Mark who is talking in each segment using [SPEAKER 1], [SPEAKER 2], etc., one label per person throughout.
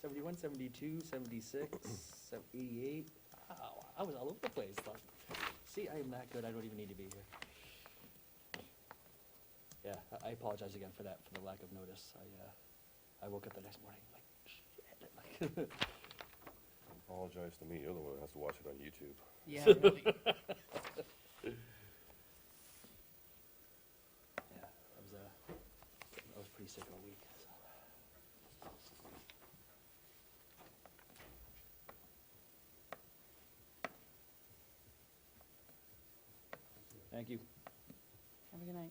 [SPEAKER 1] 71, 72, 76, 88. Wow, I was all over the place. but- See, I am that good, I don't even need to be here. Yeah, I- I apologize again for that, for the lack of notice. I, uh, I woke up the next morning like, shit, like,
[SPEAKER 2] Apologize to me, you're the one that has to watch it on YouTube.
[SPEAKER 3] Yeah, really.
[SPEAKER 1] yeah, I was, uh, I was pretty sick all week, so. Thank you.
[SPEAKER 3] Have a good night.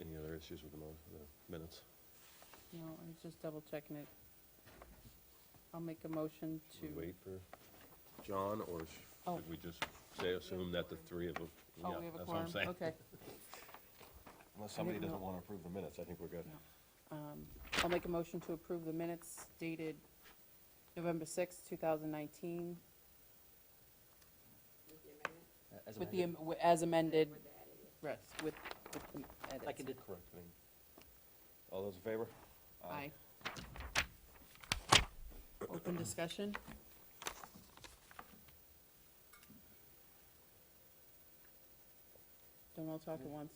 [SPEAKER 2] Any other issues with the mo- the minutes?
[SPEAKER 3] No, I was just double checking it. I'll make a motion
[SPEAKER 2] Should we
[SPEAKER 3] to,
[SPEAKER 2] wait for John, or sh-
[SPEAKER 3] Oh.
[SPEAKER 2] should we just say, assume that the three of them?
[SPEAKER 3] oh,
[SPEAKER 2] yeah,
[SPEAKER 3] we have a
[SPEAKER 2] that's what I'm
[SPEAKER 3] quorum,
[SPEAKER 2] saying.
[SPEAKER 3] okay.
[SPEAKER 2] Unless somebody
[SPEAKER 3] didn't
[SPEAKER 2] doesn't
[SPEAKER 3] know.
[SPEAKER 2] want to approve the minutes, I think we're good.
[SPEAKER 3] No. Um, I'll make a motion to approve the minutes dated November sixth, two thousand nineteen,
[SPEAKER 1] A- as
[SPEAKER 3] with the,
[SPEAKER 1] amended.
[SPEAKER 3] am- wi- as amended, rest, with, with the edits.
[SPEAKER 1] Seconded.
[SPEAKER 2] Correct. I mean, All those in favor?
[SPEAKER 3] Aye. Open discussion? Don't all talk at once.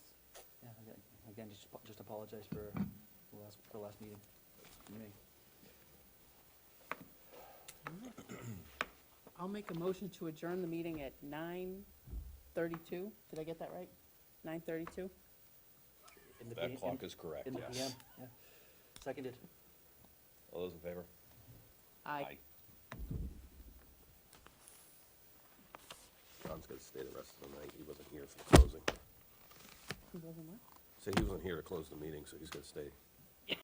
[SPEAKER 1] Yeah, again- Again, just, apo- just apologize for the last, for the last meeting, me.
[SPEAKER 3] I'll make a motion to adjourn the meeting at nine thirty-two. Did I get that right? Nine thirty-two?
[SPEAKER 1] In the P-
[SPEAKER 2] That
[SPEAKER 1] in-
[SPEAKER 2] clock is correct,
[SPEAKER 1] In the PM,
[SPEAKER 2] yes.
[SPEAKER 1] yeah. Seconded.
[SPEAKER 2] All those in favor?
[SPEAKER 3] Aye.
[SPEAKER 2] John's gonna stay the rest of the night, he wasn't here for the closing.
[SPEAKER 3] Who wasn't what?
[SPEAKER 2] Say he wasn't here to close the meeting, so he's gonna stay